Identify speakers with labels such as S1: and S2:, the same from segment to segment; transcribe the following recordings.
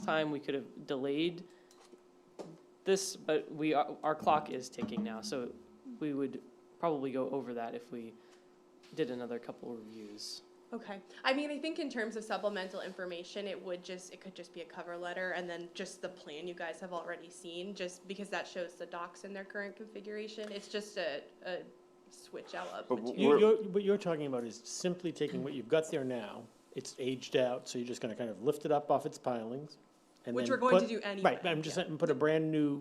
S1: time, we could have delayed this, but we, are- our clock is ticking now, so we would probably go over that if we did another couple reviews.
S2: Okay. I mean, I think in terms of supplemental information, it would just, it could just be a cover letter and then just the plan you guys have already seen, just because that shows the docs in their current configuration. It's just a, a switch out of
S3: But w-
S2: material.
S4: You,
S3: We're-
S4: you're, what you're talking about is simply taking what you've got there now, it's aged out, so you're just gonna kind of lift it up off its pilings. and
S2: Which
S4: then
S2: we're going to
S4: put-
S2: do anyway,
S4: Right, but I'm just
S2: yeah.
S4: saying, put a brand-new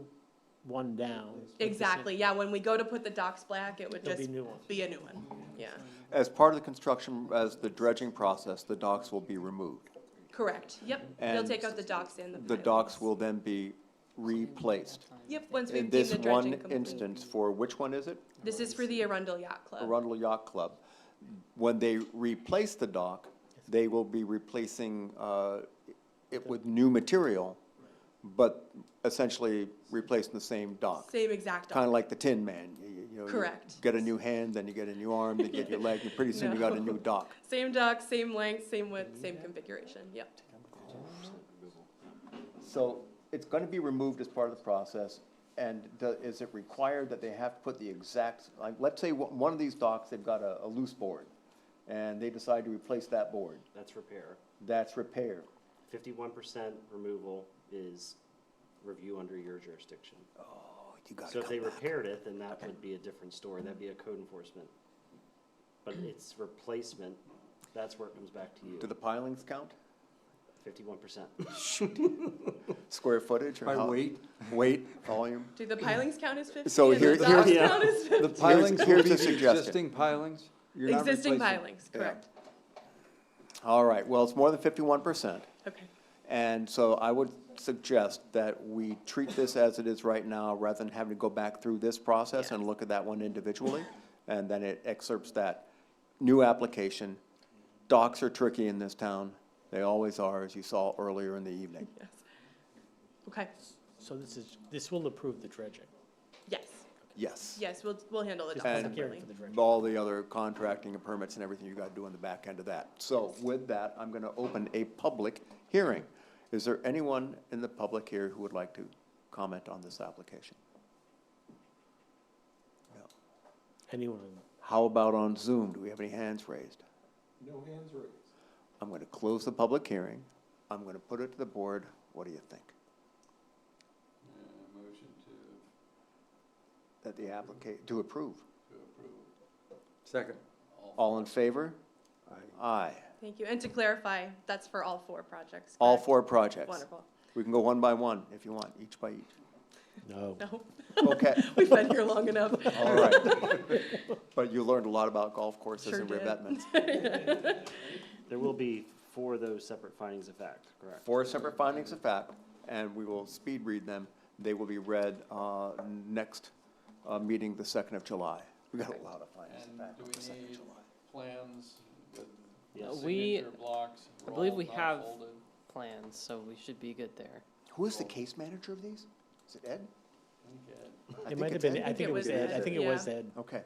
S4: one down. with the same-
S2: Exactly, yeah, when we go to put the docs black, it would
S4: There'll be
S2: just
S4: new ones.
S2: be a new one, yeah,
S3: As part of the construction, as the dredging process, the docks will be removed.
S2: correct, yep, they'll
S3: And
S2: take out the docs and the
S3: The
S2: pilings.
S3: docks will then be replaced.
S2: Yep, once
S3: In
S2: we've deemed
S3: this
S2: the dredging
S3: one
S2: complete.
S3: instance, for which one is it?
S2: This is for the Arundel Yacht Club,
S3: Arundel Yacht Club. When they replace the dock, they will be replacing uh, it with new material, but essentially replacing the same dock.
S2: same exact
S3: Kind
S2: dock,
S3: of like the Tin Man, you- you you know. you
S2: Correct.
S3: Get a new hand, then you get a new arm, then you get your leg, and pretty soon you got a
S2: No.
S3: new dock.
S2: same dock, same length, same width, same configuration, yep.
S3: So it's gonna be removed as part of the process, and do- is it required that they have to put the exact, like, let's say one one of these docks, they've got a, a loose board, and they decide to replace that board,
S5: That's repair.
S3: that's repair.
S5: Fifty-one percent removal is review under your jurisdiction.
S3: Oh, you
S5: So
S3: gotta
S5: if they
S3: come back.
S5: repaired it, then that would be a different story, that'd be a code enforcement. But it's replacement, that's where it comes back to
S3: Do
S5: you,
S3: the pilings count?
S5: fifty-one percent.
S3: Square footage or
S6: By
S3: how-
S6: weight?
S3: Weight, volume?
S2: Do the pilings count as fifty?
S3: So
S2: and
S3: here-
S2: the
S3: here-
S2: docks
S5: Yeah.
S2: count as
S3: The
S2: 50?
S3: pilings,
S6: will
S3: here's
S6: be
S3: a
S6: the
S3: suggestion.
S6: Existing pilings? You're not
S2: Existing
S6: replacing-
S2: pilings, correct,
S3: All right, well, it's more than fifty-one percent.
S2: okay,
S3: And so I would suggest that we treat this as it is right now, rather than having to go back through this process and look at that one individually. And then it excerpts that new application. Docs are tricky in this town. They always are, as you saw earlier in the evening.
S2: yes. Okay,
S4: So this is, this will approve the dredging.
S2: yes,
S3: Yes.
S2: yes, we'll, we'll handle the
S4: Just
S2: docks
S3: public
S4: hearing
S2: separately.
S4: for the dredging.
S3: All the other contracting and permits and everything you gotta do on the back end of that. So with that, I'm gonna open a public hearing. Is there anyone in the public here who would like to comment on this application?
S4: Anyone, in-
S3: How about on Zoom? Do we have any hands raised?
S6: No hands raised.
S3: I'm going to close the public hearing. I'm going to put it to the board. What do you think?
S6: Uh, Motion to,
S3: That the applicant, to approve.
S6: to approve. Second.
S3: All in favor?
S6: Aye.
S3: Aye.
S2: Thank you, and to clarify, that's for all four projects,
S3: All
S2: correct?
S3: four projects.
S2: Wonderful,
S3: We can go one by one if you want, each by each.
S4: no.
S2: no,
S3: Okay,
S2: we've been here long enough.
S3: all right. But you learned a lot about golf courses
S2: Sure
S3: and
S2: did.
S3: revetments.
S5: There will be four of those separate findings of fact, correct?
S3: Four separate findings of fact, and we will speed read them. They will be read uh, next uh, meeting, the 2nd of July. We got a lot of findings of
S6: And
S3: fact
S6: do
S3: on the 2nd
S6: we
S3: of
S6: need
S3: July.
S6: plans with
S1: Uh,
S5: Yes,
S1: we-
S6: signature blocks?
S1: I believe we
S6: rolled, not
S1: have-
S6: folded?
S1: Plans, so we should be good there.
S3: Who is the case manager of these? Is it Ed? I
S6: Okay.
S4: It
S3: think
S4: might have
S3: it's
S4: been,
S3: Ed.
S4: I think it was Ed, I think it was Ed.
S3: Okay.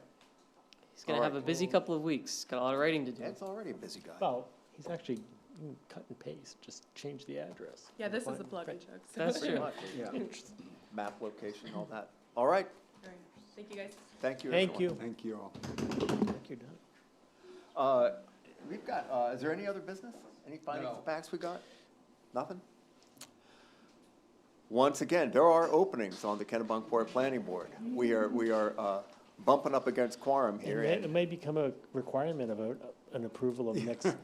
S1: He's gonna
S3: All
S1: have a
S3: right.
S1: busy couple of weeks, got a lot of writing to do.
S3: Ed's already a busy guy.
S4: Well, he's actually, you can cut and paste, just change the address.
S2: Yeah, this is a plug and chug, so,
S1: That's
S3: Pretty
S1: true.
S3: much, yeah. Map location, all that. All right,
S2: All right. thank you guys.
S3: thank you,
S4: Thank
S3: everyone.
S4: you.
S6: Thank you all.
S4: Thank you, Doug.
S3: Uh, we've got, uh, is there any other business? Any findings
S6: No.
S3: of facts we got? Nothing? Once again, there are openings on the Kennebunkport Planning Board. We are, we are, uh, bumping up against quorum
S4: It
S3: here.
S4: may,
S3: and
S4: it may become a requirement of a, an approval of next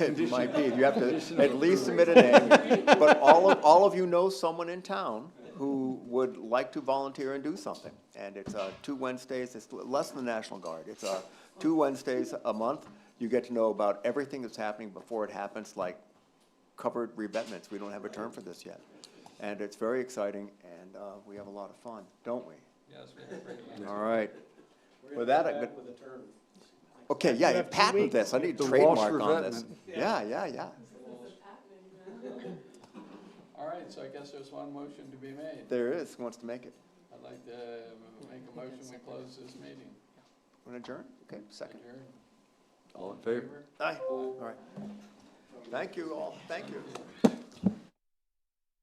S3: It might be, you have to at least submit a name, but all of, all of you know someone in town who would like to volunteer and do something. And it's, uh, two Wednesdays, it's less than the National Guard, it's, uh, two Wednesdays a month. You get to know about everything that's happening before it happens, like covered revetments, we don't have a term for this yet. And it's very exciting, and, uh, we have a lot of fun, don't we?
S6: Yes, we have pretty much.
S3: All right. With that, I could. Okay, yeah, yeah, patent this, I need
S6: The Walsh
S3: trademark on this.
S6: revetment.
S3: Yeah, yeah, yeah.
S6: All right, so I guess there's one motion to be made.
S3: There is, who wants to make it?
S6: I'd like to make a motion, we close this meeting.
S3: Want to adjourn? Okay, second.
S6: Adjourn.
S3: Aye, all right. Thank you all, thank you.